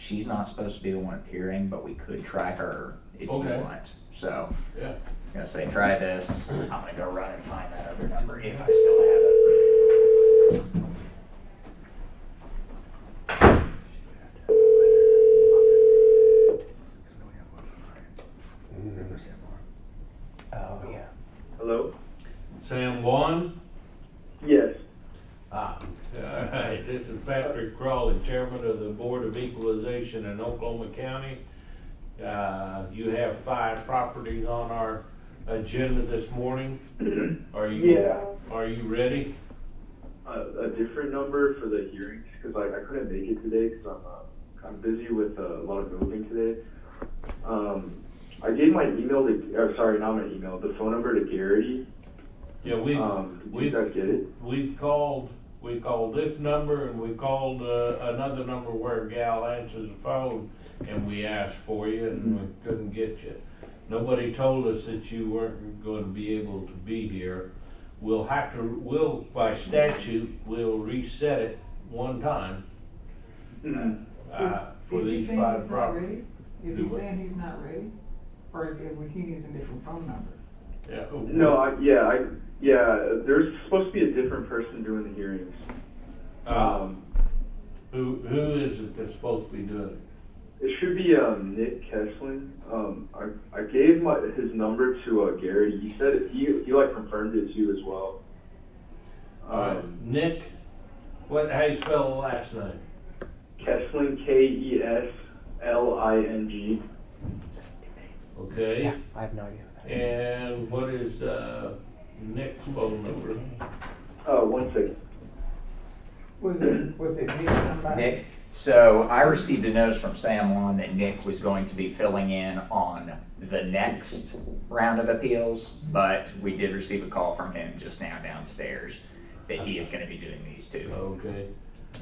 she's not supposed to be the one appearing, but we could try her if Okay. you want. So Yeah. I was gonna say try this. I'm gonna go run and find that other number if I still have it. Mm-hmm. Oh yeah. Hello? Sam One? Yes. Ah. All right, this is Patrick Crawley, Chairman of the Board of Equalization in Oklahoma County. Uh, you have five properties on our agenda this morning. Uh, Are you? Yeah. Are you ready? A, a different number for the hearings, because like I couldn't make it today because I'm, uh, I'm busy with uh, a lot of moving today. Um, I gave my email to, or sorry, not my email, the phone number to Garrity. Yeah, we, Um, did you we, guys get it? we've called, we called this number and we called, uh, another number where a gal answers the phone and we asked for you and we Mm-hmm. couldn't get you. Nobody told us that you weren't gonna be able to be here. We'll have to, we'll, by statute, we'll reset it one time, uh, for Is he these saying he's five not properties. ready? Is Do he what? saying he's not ready? Or if he needs a different phone number? Yeah, oh, No, I, yeah, I, yeah, there's supposed to be a different person doing the hearings. Uh, Um, who, who is it that's supposed to be doing it? it should be, um, Nick Kesslin. Um, I, I gave my, his number to, uh, Garrity. He said, it- he, he like confirmed it too as well. Uh, Um, Nick, what, how you spell the last name? Kessling, K E S L I N G. Okay. Yeah, I have no idea what that is. And what is uh, Nick's phone number? Uh, one second. Was it, was it Nick somebody? Nick. So I received a notice from Sam Juan that Nick was going to be filling in on the next round of appeals, but we did receive a call from him just now downstairs that he is gonna be doing these two. Okay.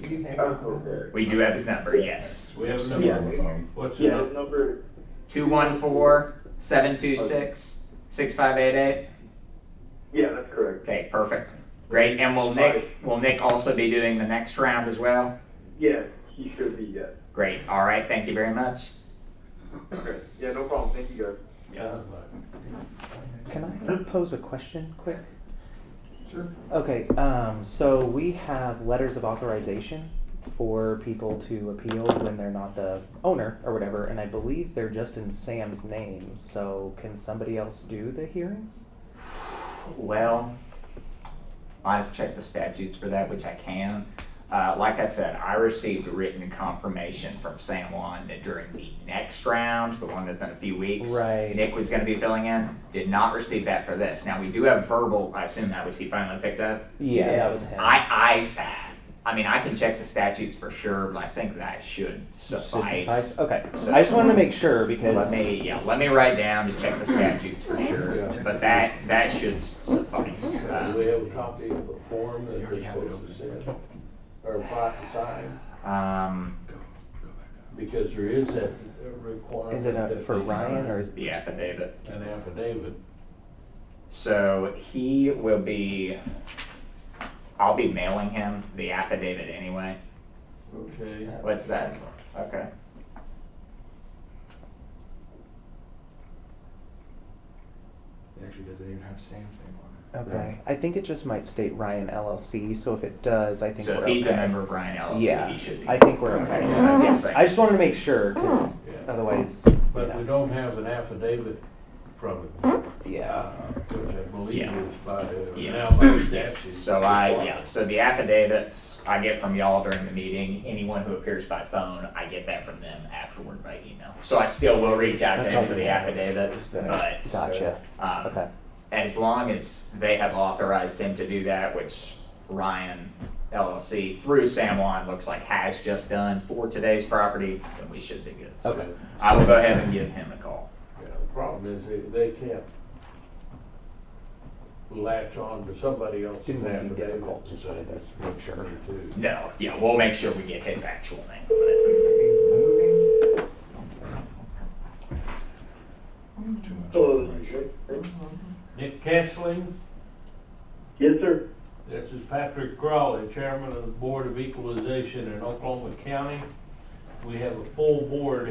Do you have his number? Okay. We do have his number, yes. We have a Yeah. number. What's the Yeah, number? his number. Two one four, seven two six, six five eight eight. Yeah, that's correct. Okay, perfect. Great, and will Nick, will Nick also be doing the next round as well? Yeah, he should be, yeah. Great, all right, thank you very much. Okay. Yeah, no problem. Thank you guys. Yeah. Can I pose a question quick? Sure. Okay, um, so we have letters of authorization for people to appeal when they're not the owner or whatever, and I believe they're just in Sam's name, so can somebody else do the hearings? Well, I've checked the statutes for that, which I can. Uh, like I said, I received written confirmation from San Juan that during the next round, the one that's in a few weeks, Right. Nick was going to be filling in. Did not receive that for this. Now we do have verbal. I assume that was he finally picked up. Yeah, that was him. I, I, I mean, I can check the statutes for sure, but I think that should Should suffice. suffice? Okay, So- I just wanted to make sure Let because, me, yeah, let me write down to check the statutes for sure. Yeah. But that that should suffice. Uh, Um, Do we have a copy of the form that they're supposed to send? Or fi- sign? Um, Because there is that requirement. is it a, that for they Ryan or is? the affidavit. sign An affidavit. So he will be, I'll be mailing him the affidavit anyway. Okay. What's that? Okay. It actually doesn't even have Sam's name on Okay, I think it just might state Ryan LLC, so if it does, I think So we're if he's a okay. member of Ryan LLC, Yeah, he should be. I think we're Okay, okay. yeah, yes, I- I just wanted to make sure, because Yeah. otherwise, But we yeah. don't have an affidavit from it, uh, yeah. which I believe Yeah. is by, uh, now Yes. by Yes, statute. so I, yeah, so the affidavits I get from y'all during the meeting, anyone who appears by phone, I get that from them afterward by email. So I still will reach out to That's him all for the we have. affidavit, but, Gotcha. uh, um, Okay. as long as they have authorized him to do that, which Ryan LLC through San Juan looks like has just done for today's property, then we should be good. So Okay. I will go ahead and give him a call. Yeah, the problem is they, they can't latch on to somebody else's Didn't want to affidavit. be difficult, just wanted to make sure. No, yeah, we'll make sure we get his actual name. He said he's moving. it. Too much Hello. information. Nick Kessling, Yes, sir. this is Patrick Crawley, Chairman of the Board of Equalization in Oklahoma County. we have a full board